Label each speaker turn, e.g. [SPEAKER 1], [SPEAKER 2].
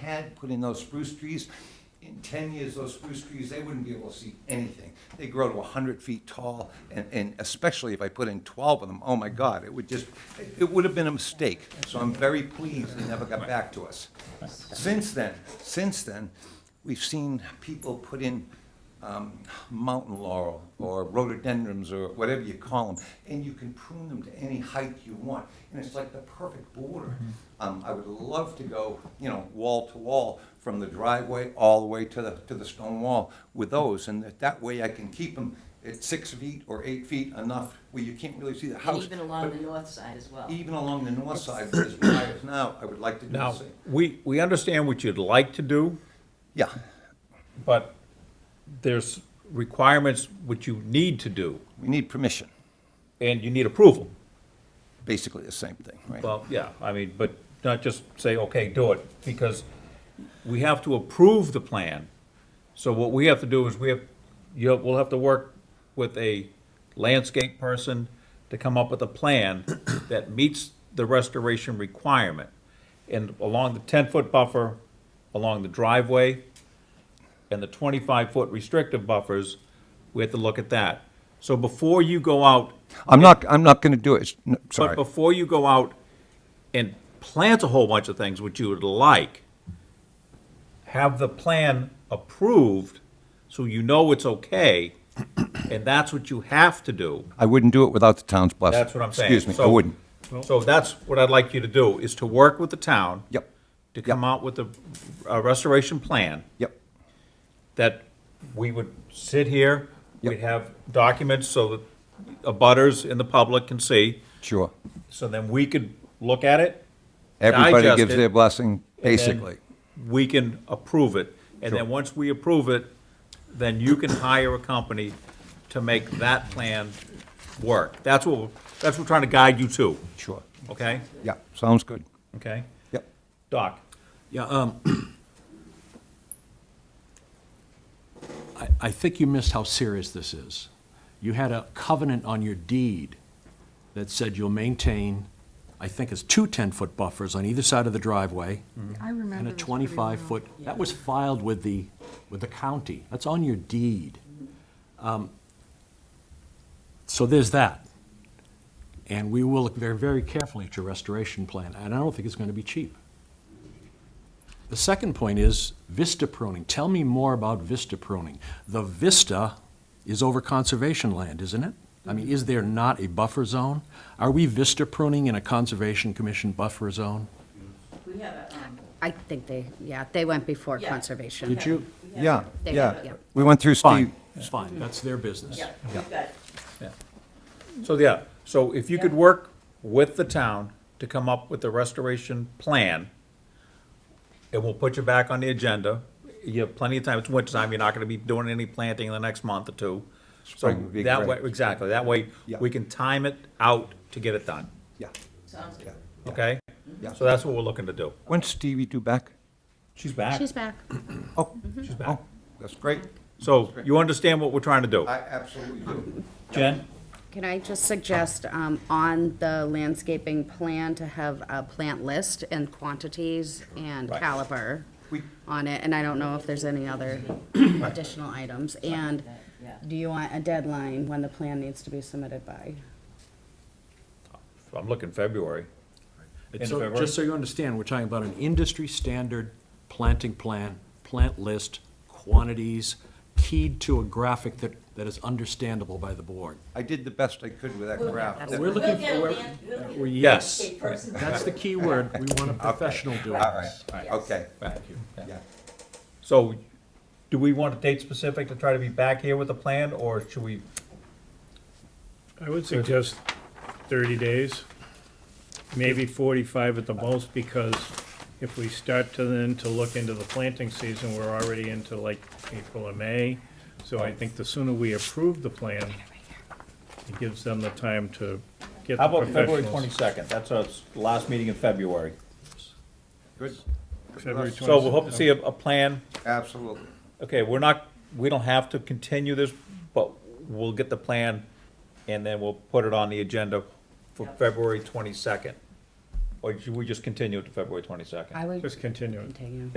[SPEAKER 1] had put in those spruce trees, in ten years, those spruce trees, they wouldn't be able to see anything. They grow to hundred feet tall, and, and especially if I put in twelve of them, oh my God, it would just, it would have been a mistake. So I'm very pleased they never got back to us. Since then, since then, we've seen people put in um, mountain laurel or rhododendrons or whatever you call them, and you can prune them to any height you want, and it's like the perfect border. Um, I would love to go, you know, wall to wall from the driveway all the way to the to the stone wall with those, and that, that way I can keep them at six feet or eight feet enough where you can't really see the
[SPEAKER 2] And
[SPEAKER 1] house.
[SPEAKER 2] even along
[SPEAKER 1] But
[SPEAKER 2] the north side as well.
[SPEAKER 1] even along the north side, where this fire is now, I would like to do the
[SPEAKER 3] Now,
[SPEAKER 1] same.
[SPEAKER 3] we, we understand what you'd like to do,
[SPEAKER 1] Yeah,
[SPEAKER 3] but there's requirements which you need to do,
[SPEAKER 1] we need permission,
[SPEAKER 3] and you need approval.
[SPEAKER 1] basically the same thing, right?
[SPEAKER 3] Well, yeah, I mean, but not just say, okay, do it, because we have to approve the plan. So what we have to do is we have, you know, we'll have to work with a landscape person to come up with a plan that meets the restoration requirement. And along the ten-foot buffer, along the driveway, and the twenty-five-foot restrictive buffers, we have to look at that. So before you go out
[SPEAKER 1] I'm not, I'm not gonna do it, It's- no,
[SPEAKER 3] but
[SPEAKER 1] sorry.
[SPEAKER 3] before you go out and plant a whole bunch of things which you would like, have the plan approved so you know it's okay, and that's what you have to do.
[SPEAKER 1] I wouldn't do it without the town's blessing.
[SPEAKER 3] That's what I'm saying.
[SPEAKER 1] Excuse me, I
[SPEAKER 3] So-
[SPEAKER 1] wouldn't.
[SPEAKER 3] So that's what I'd like you to do, is to work with the town.
[SPEAKER 1] Yep.
[SPEAKER 3] To come out with a, a restoration plan
[SPEAKER 1] Yep,
[SPEAKER 3] that we would sit here,
[SPEAKER 1] Yep.
[SPEAKER 3] we'd have documents so that abutters and the public can see,
[SPEAKER 1] sure.
[SPEAKER 3] so then we could look at it
[SPEAKER 1] Everybody
[SPEAKER 3] Digest
[SPEAKER 1] gives
[SPEAKER 3] it,
[SPEAKER 1] their blessing,
[SPEAKER 3] and
[SPEAKER 1] basically.
[SPEAKER 3] then We can approve it, and
[SPEAKER 1] Sure.
[SPEAKER 3] then once we approve it, then you can hire a company to make that plan work. That's what, we're- that's what we're trying to guide you to,
[SPEAKER 1] Sure.
[SPEAKER 3] okay?
[SPEAKER 1] Yeah, sounds good.
[SPEAKER 3] Okay?
[SPEAKER 1] Yep.
[SPEAKER 3] Doc?
[SPEAKER 4] Yeah, um, I, I think you missed how serious this is. You had a covenant on your deed that said you'll maintain, I think it's two 10-foot buffers on either side of the driveway
[SPEAKER 5] I remember
[SPEAKER 4] and a
[SPEAKER 5] this pretty well.
[SPEAKER 4] 25-foot, that was filed with the, with the county. That's on your deed. Um, So there's that. And we will look very, very carefully at your restoration plan, and I don't think it's going to be cheap. The second point is vista pruning. Tell me more about vista pruning. The vista is over conservation land, isn't it? I mean, is there not a buffer zone? Are we vista pruning in a Conservation Commission buffer zone?
[SPEAKER 2] We have a, um,
[SPEAKER 5] I think they, yeah, they went before
[SPEAKER 2] Yeah.
[SPEAKER 5] conservation.
[SPEAKER 4] Did you?
[SPEAKER 2] we have
[SPEAKER 1] Yeah,
[SPEAKER 2] a-
[SPEAKER 5] They-
[SPEAKER 1] yeah.
[SPEAKER 5] yeah.
[SPEAKER 1] We went through Steve.
[SPEAKER 4] Fine, fine, that's their business.
[SPEAKER 2] Yeah, we've got,
[SPEAKER 3] So, yeah, so if you could work with the town to come up with the restoration plan, and we'll put you back on the agenda. You have plenty of time, it's winter time, you're not gonna be doing any planting in the next month or two. So
[SPEAKER 1] Spring would be
[SPEAKER 3] that way,
[SPEAKER 1] great.
[SPEAKER 3] Exactly, that way,
[SPEAKER 1] Yeah.
[SPEAKER 3] we can time it out to get it done,
[SPEAKER 1] Yeah,
[SPEAKER 2] sounds good.
[SPEAKER 1] yeah.
[SPEAKER 3] okay?
[SPEAKER 1] Yeah.
[SPEAKER 3] So that's what we're looking to do.
[SPEAKER 1] When's Stevie due back?
[SPEAKER 3] She's back.
[SPEAKER 5] She's back.
[SPEAKER 1] Oh,
[SPEAKER 3] She's
[SPEAKER 1] oh,
[SPEAKER 3] back.
[SPEAKER 1] that's great.
[SPEAKER 3] So you understand what we're trying to do?
[SPEAKER 1] I absolutely do.
[SPEAKER 3] Jen?
[SPEAKER 5] Can I just suggest um, on the landscaping plan to have a plant list and quantities and
[SPEAKER 3] Right.
[SPEAKER 5] caliber
[SPEAKER 1] We-
[SPEAKER 5] on it? And I don't know if there's any other additional items. And
[SPEAKER 2] Yeah.
[SPEAKER 5] do you want a deadline when the plan needs to be submitted by?
[SPEAKER 3] I'm looking February. End of
[SPEAKER 4] So,
[SPEAKER 3] February?
[SPEAKER 4] just so you understand, we're talking about an industry-standard planting plan, plant list, quantities, keyed to a graphic that, that is understandable by the board.
[SPEAKER 1] I did the best I could with that graph.
[SPEAKER 5] That's-
[SPEAKER 4] We're
[SPEAKER 2] We'll
[SPEAKER 4] looking
[SPEAKER 2] get a
[SPEAKER 4] for,
[SPEAKER 2] man- we'll get a
[SPEAKER 4] we're-
[SPEAKER 3] Yes.
[SPEAKER 2] landscape person.
[SPEAKER 4] that's the key word, we want a professional doing
[SPEAKER 1] All right,
[SPEAKER 4] this.
[SPEAKER 1] okay,
[SPEAKER 3] Thank you.
[SPEAKER 1] yeah.
[SPEAKER 3] So, do we want a date specific to try to be back here with a plan, or should we?
[SPEAKER 6] I would suggest thirty days, maybe forty-five at the most, because if we start to then to look into the planting season, we're already into like April or May. So I think the sooner we approve the plan, it gives them the time to get
[SPEAKER 3] How
[SPEAKER 6] the
[SPEAKER 3] about February
[SPEAKER 6] professionals.
[SPEAKER 3] twenty-second? That's our last meeting in February.
[SPEAKER 1] Good,
[SPEAKER 6] February
[SPEAKER 3] So we'll hope to see a, a plan.
[SPEAKER 1] absolutely.
[SPEAKER 3] Okay, we're not, we don't have to continue this, but we'll get the plan, and then we'll put it on the agenda for February twenty-second. Or should we just continue it to February twenty-second?
[SPEAKER 5] I would
[SPEAKER 6] Just continue it.
[SPEAKER 5] continue.